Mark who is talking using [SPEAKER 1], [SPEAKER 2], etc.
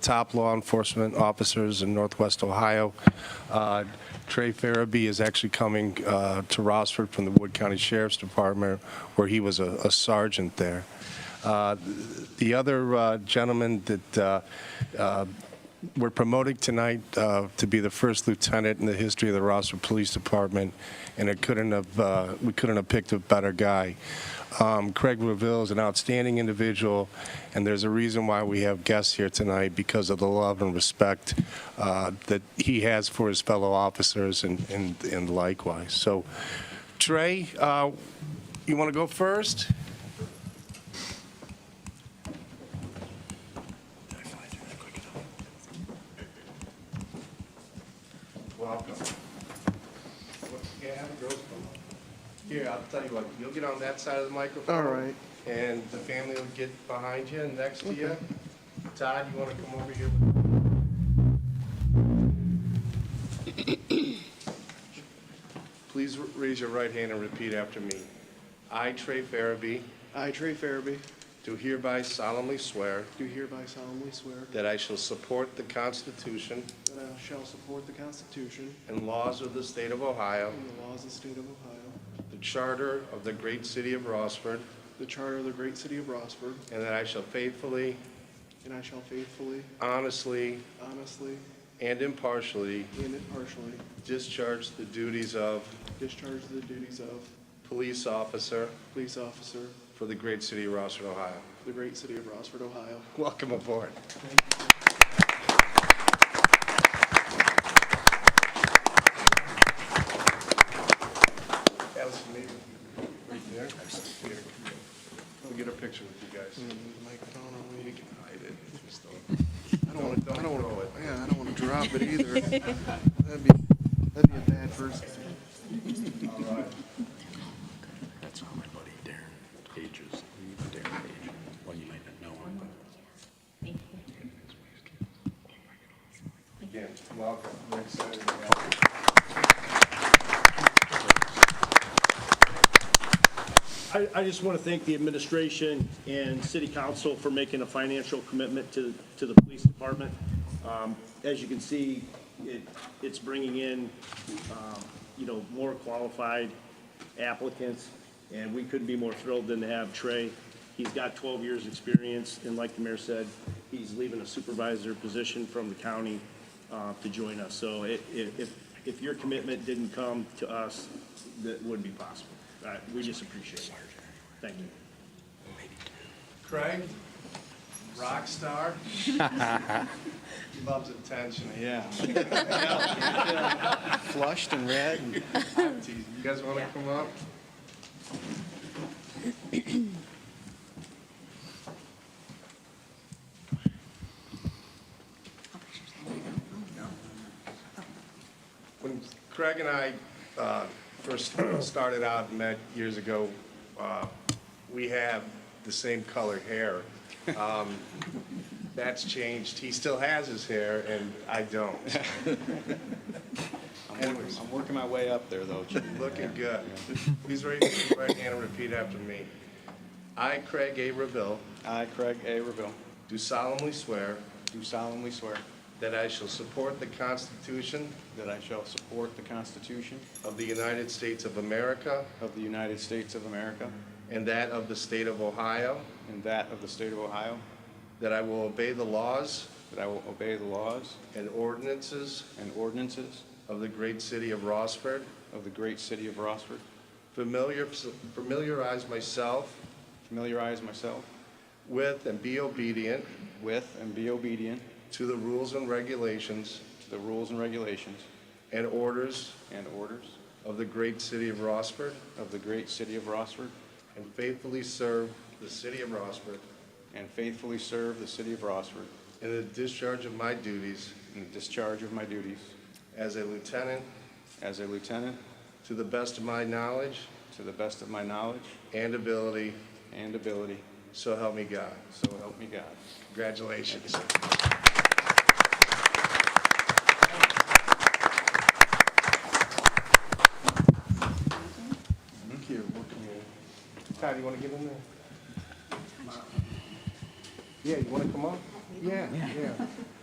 [SPEAKER 1] top law enforcement officers in Northwest Ohio. Uh, Trey Farabee is actually coming uh, to Rossford from the Wood County Sheriff's Department, where he was a a sergeant there. Uh, The other uh, gentleman that uh, uh, we're promoting tonight uh, to be the first lieutenant in the history of the Rossford Police Department, and it couldn't have, uh, we couldn't have picked a better guy. Um, Craig Reville is an outstanding individual, and there's a reason why we have guests here tonight because of the love and respect uh, that he has for his fellow officers and- and and likewise. So Trey, uh, you want to go first? Welcome. Yeah, have a girls come up. Here, I'll tell you what, you'll get on that side of the microphone.
[SPEAKER 2] All right.
[SPEAKER 1] And the family will get behind you and next to you. Todd, you want to come over here? Please raise your right hand and repeat after me. I, Trey Farabee,
[SPEAKER 2] I, Trey Farabee,
[SPEAKER 1] do hereby solemnly swear
[SPEAKER 2] do hereby solemnly swear
[SPEAKER 1] that I shall support the Constitution
[SPEAKER 2] that I shall support the Constitution
[SPEAKER 1] and laws of the state of Ohio,
[SPEAKER 2] and the laws of the state of Ohio,
[SPEAKER 1] the charter of the great city of Rossford,
[SPEAKER 2] the charter of the great city of Rossburg,
[SPEAKER 1] and that I shall faithfully,
[SPEAKER 2] and I shall faithfully,
[SPEAKER 1] honestly,
[SPEAKER 2] honestly,
[SPEAKER 1] and impartially
[SPEAKER 2] and impartially
[SPEAKER 1] discharge the duties of
[SPEAKER 2] discharge the duties of
[SPEAKER 1] police officer
[SPEAKER 2] police officer
[SPEAKER 1] for the great city of Rossford, Ohio.
[SPEAKER 2] for the great city of Rossburg, Ohio.
[SPEAKER 1] Welcome aboard. That was amazing. Right there. Here. We'll get a picture with you guys.
[SPEAKER 2] Microphone on me.
[SPEAKER 1] Hide it. Just don't-
[SPEAKER 2] I don't want to, I don't
[SPEAKER 1] throw
[SPEAKER 2] want
[SPEAKER 1] it.
[SPEAKER 2] to, yeah, I don't want to drop it either. That'd be, that'd be a bad person.
[SPEAKER 3] That's how my buddy Darren Page is. Darren Page. Well, you might not know him, but.
[SPEAKER 1] Again, welcome. We're excited to have you.
[SPEAKER 4] I, I just want to thank the administration and city council for making a financial commitment to, to the police department. Um, As you can see, it, it's bringing in, um, you know, more qualified applicants, and we couldn't be more thrilled than to have Trey. He's got 12 years' experience, and like the mayor said, he's leaving a supervisor position from the county uh, to join us. So it- it- if, if your commitment didn't come to us, that wouldn't be possible. Uh, We just appreciate it. Thank you.
[SPEAKER 1] Craig, rock star. He Loves attention.
[SPEAKER 2] Yeah. Flushed and red and.
[SPEAKER 1] You guys want to come up? When Craig and I uh, first started out and met years ago, uh, we had the same color hair. Um, That's changed. He still has his hair, and I don't.
[SPEAKER 5] I'm working- I'm working my way up there, though. Jim.
[SPEAKER 1] Looking good. Please raise your right hand and repeat after me. I, Craig A. Reville,
[SPEAKER 5] I, Craig A. Reville,
[SPEAKER 1] do solemnly swear
[SPEAKER 5] do solemnly swear
[SPEAKER 1] that I shall support the Constitution
[SPEAKER 5] that I shall support the Constitution
[SPEAKER 1] of the United States of America
[SPEAKER 5] of the United States of America
[SPEAKER 1] and that of the state of Ohio,
[SPEAKER 5] and that of the State of Ohio,
[SPEAKER 1] that I will obey the laws
[SPEAKER 5] that I will obey the laws
[SPEAKER 1] and ordinances
[SPEAKER 5] and ordinances
[SPEAKER 1] of the great city of Rossford,
[SPEAKER 5] of the great city of Rossford,
[SPEAKER 1] familiar- familiarize myself
[SPEAKER 5] familiarize myself
[SPEAKER 1] with and be obedient
[SPEAKER 5] with and be obedient
[SPEAKER 1] to the rules and regulations
[SPEAKER 5] to the rules and regulations
[SPEAKER 1] and orders
[SPEAKER 5] and orders
[SPEAKER 1] of the great city of Rossford,
[SPEAKER 5] of the great city of Rossford,
[SPEAKER 1] And faithfully serve the city of Rossburg
[SPEAKER 5] and faithfully serve the city of Rossford
[SPEAKER 1] in the discharge of my duties
[SPEAKER 5] in the discharge of my duties
[SPEAKER 1] as a lieutenant
[SPEAKER 5] as a lieutenant
[SPEAKER 1] to the best of my knowledge
[SPEAKER 5] to the best of my knowledge
[SPEAKER 1] and ability,
[SPEAKER 5] and ability,
[SPEAKER 1] so help me God.
[SPEAKER 5] so help me God.
[SPEAKER 1] Congratulations. Here, what can you- Todd, you want to get in there? Yeah, you want to come up? Yeah, yeah.